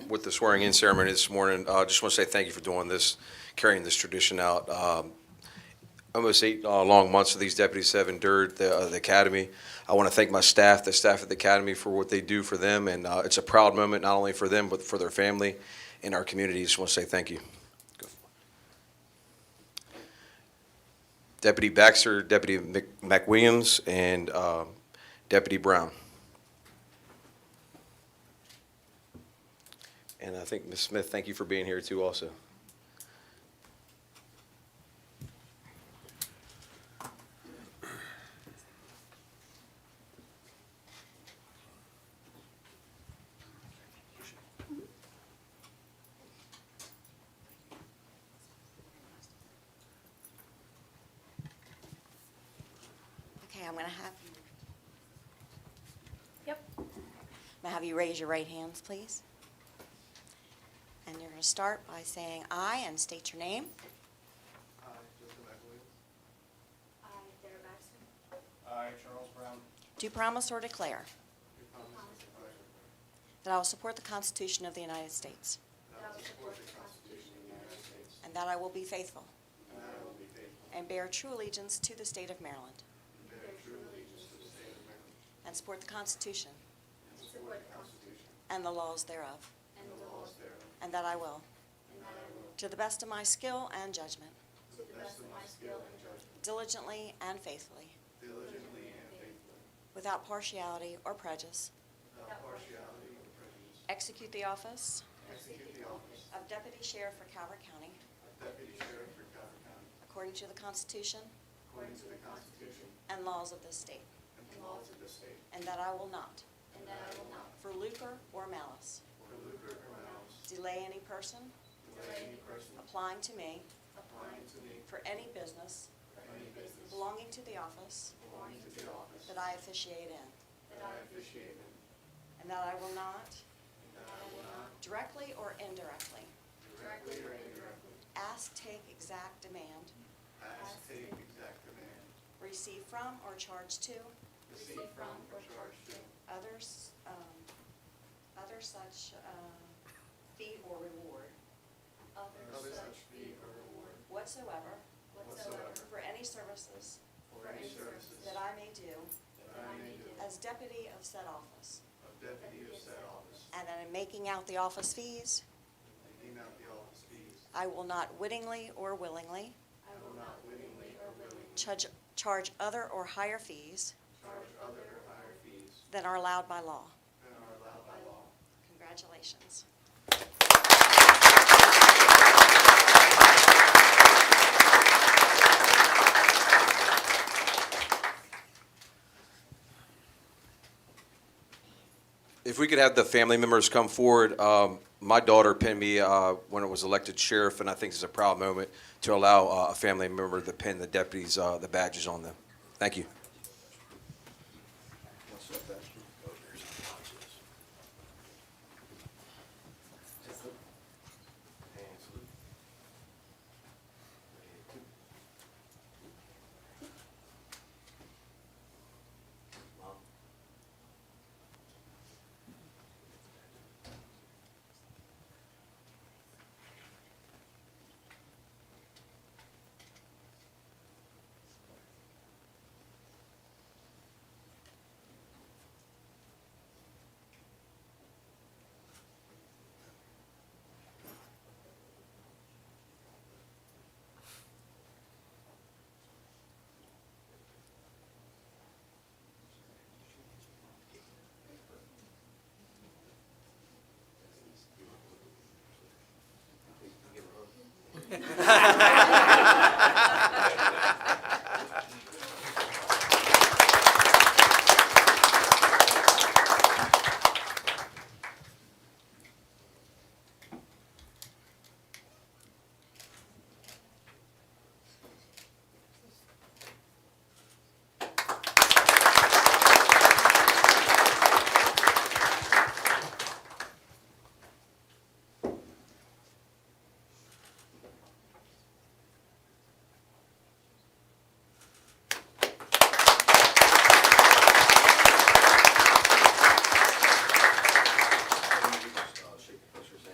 with the swearing-in ceremony this morning. I just want to say thank you for doing this, carrying this tradition out. Um, Almost eight uh, long months of these deputies have endured the uh, the academy. I want to thank my staff, the staff at the academy, for what they do for them, and uh, it's a proud moment, not only for them, but for their family and our community. Just want to say thank you. Deputy Baxter, Deputy Mc- McWilliams, and uh, Deputy Brown. And I think, Ms. Smith, thank you for being here too also. Okay, I'm going to have, you- Yep. I'm gonna have you raise your right hands, please. And you're going to start by saying aye and state your name. I, Joseph McWilliams. Um, I, Sarah Baxter, I, Charles Brown. Do promise or declare Do promise and pledge that I will support the Constitution of the United States that I will support the Constitution of the United States and that I will be faithful and that I will be faithful and bear true allegiance to the state of Maryland and bear true allegiance to the state of Maryland and support the Constitution and support the Constitution and the laws thereof, and the laws thereof and that I will, to the best of my skill and judgment, to the best of my skill and judgment, diligently and faithfully, diligently and faithfully, without partiality or prejudice, without partiality or prejudice, execute the office execute the office Of Deputy Sheriff for Calvert County, of Deputy Sheriff for Calvert County according to the Constitution according to the Constitution and laws of this state, and the laws of the state, and that I will not, for lucre or malice, for lucre or malice, delay any person delay any person applying to me applying to me for any business for any business belonging to the office belonging to the office that I officiate in, that I officiate in, and that I will not, and that I will not directly or indirectly, directly or indirectly ask, take, exact, demand, Ask, take, exact command, receive from or charge to receive from, or charge to others, um, other such uh, fee or reward other such fee or reward whatsoever whatsoever for any services for any services That I may do that I may do as deputy of said office. of deputy of said office, And that in making out the office fees, taking out the office fees, I will not wittingly or willingly I will not wittingly or willingly charge, charge other or higher fees charge other or higher fees than are allowed by law. than are allowed by law. Congratulations. If we could have the family members come forward, um, my daughter pinned me uh, when I was elected sheriff, and I think it's a proud moment to allow uh, a family member to pin the deputies, uh, the badges on them. Thank you. Oh,